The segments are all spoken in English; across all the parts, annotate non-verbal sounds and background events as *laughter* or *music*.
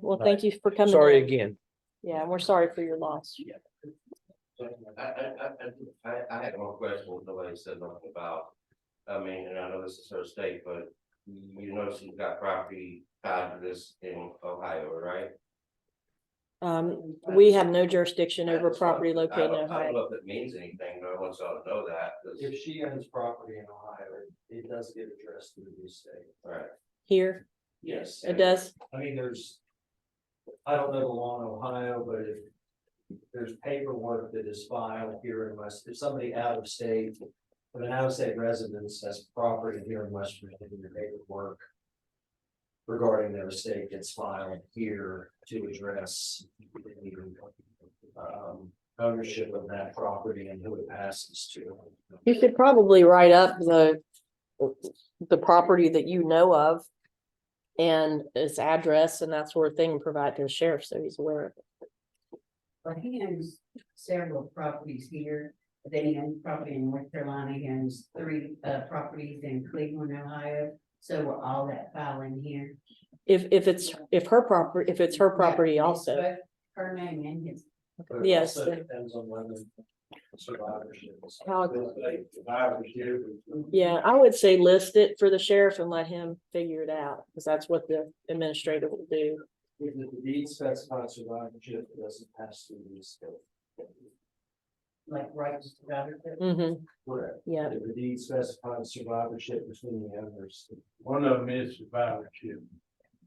well, thank you for coming. Sorry in. again. Yeah, we're sorry for your loss. I, I, I, I, I had one question, when nobody said nothing about, I mean, and I know this is her state, but you know she's got property tied to this in Ohio, right? Um, we have no jurisdiction over That's fine. property I located in don't- I don't Ohio. know if it means anything, but I want y'all to know that, 'cause- If she owns property in Ohio, it does get addressed through the state. right, Here, Yes. it does. I mean, there's, I don't know the law in Ohio, but if there's paperwork that is filed here in West, if somebody out of state, if an out of state resident has property here in West Virginia, the paperwork regarding their estate gets filed here to address um, ownership of that property and who it passes to. You could probably write up the, the property that you know of and its address and that sort of thing and provide to the sheriff so he's aware of it. Well, he owns several properties here, but then he owns property in North Carolina, he owns three uh properties in Cleveland, Ohio. So we're all that filing here. If, if it's, if her property, if it's her property Yeah, also. both Her name and his, But it Yes, also the- Depends on whether survivorship. is- How- Survivorship. Yeah, I would say list it for the sheriff and let him figure it out, because that's what the administrator will do. If the deed specifies survivorship, it doesn't pass through the scope. like right just about her. Mhm, Correct. yeah, If the deed specifies survivorship between the owners. One of them is survivorship.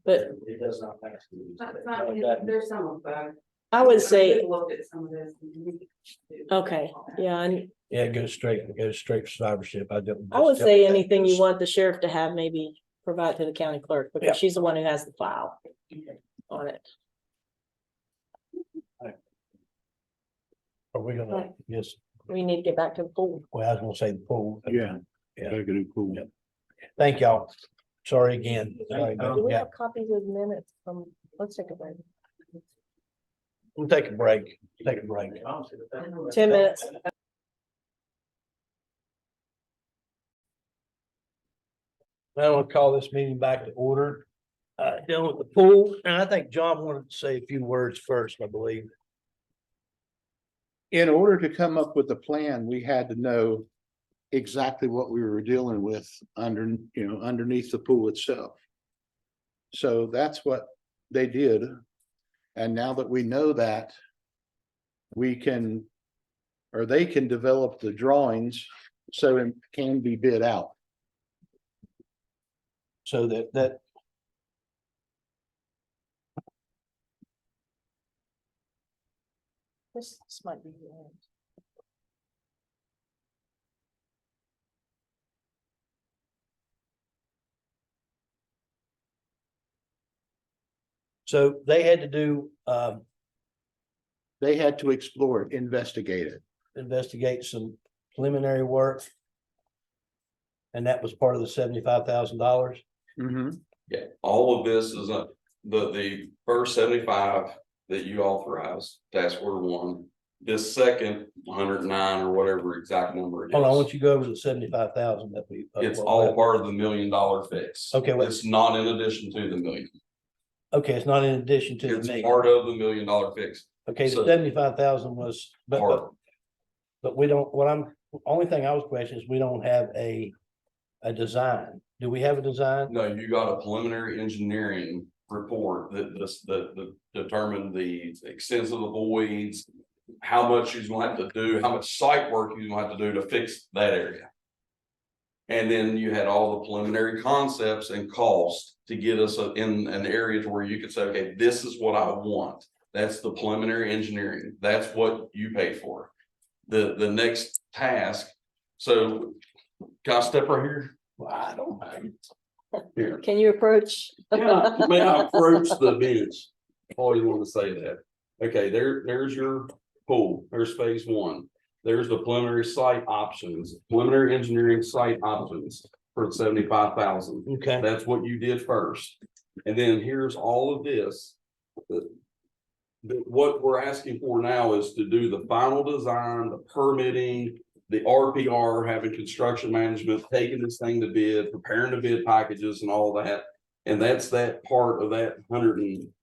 but It does not pass through. the That's estate. not, Like his- that- there's some of both. I would say, Looked at some of this. okay, yeah, and Yeah, it goes straight, it goes straight to survivorship. I don't. I would say anything you want the sheriff to have, maybe provide to the county clerk, Yeah. because she's the one who has the file on it. Are we gonna, yes, We need to get back to the pool. well, I was gonna say the pool. Yeah. Yeah. That could be cool. Yep. Thank y'all. Sorry again. Sorry about- Do we Oh, Yeah, have copies of minutes from, let's take a break. we'll take a break, take a break. Ten minutes. Now I'll call this meeting back to order. Uh, dealing with the pool, and I think John wanted to say a few words first, I believe. In order to come up with a plan, we had to know exactly what we were dealing with under, you know, underneath the pool itself. So that's what they did. And now that we know that, we can, or they can develop the drawings so it can be bid out. So that, that. This, this might be. the end. So they had to do, um, They had to explore it, investigate it. investigate some preliminary work. And that was part of the seventy-five thousand dollars. Mhm. Yeah, all of this is a, the, the first seventy-five that you authorized, task order one. This second, hundred and nine or whatever exact number it is. Hold on, I want you to go over the seventy-five thousand that we. It's all part of the million dollar fix. Okay, wait. It's not in addition to the million. Okay, it's not in addition to the It's million. part of the million dollar fix. Okay, the so- seventy-five thousand was, but, but, Part. but we don't, what I'm, only thing I was questioning is we don't have a, a design. Do we have a design? No, you got a preliminary engineering report that, this- that, that determined the extent of the voids. How much you're gonna have to do, how much site work you're gonna have to do to fix that area. And then you had all the preliminary concepts and costs to get us a- in an area to where you could say, okay, this is what I want. That's the preliminary engineering. That's what you pay for. The, the next task, so can I step right here? Well, I don't mind. Here. Can you approach? Yeah, may I approach the *laughs* bench? Always want to say that. Okay, there, there's your pool, there's phase one. There's the preliminary site options, preliminary engineering site options for seventy-five thousand. Okay, That's what you did first. And then here's all of this. The- the- what we're asking for now is to do the final design, the permitting, the RPR, having construction management, taking this thing to bid, preparing the bid packages and all that. And that's that part of that hundred and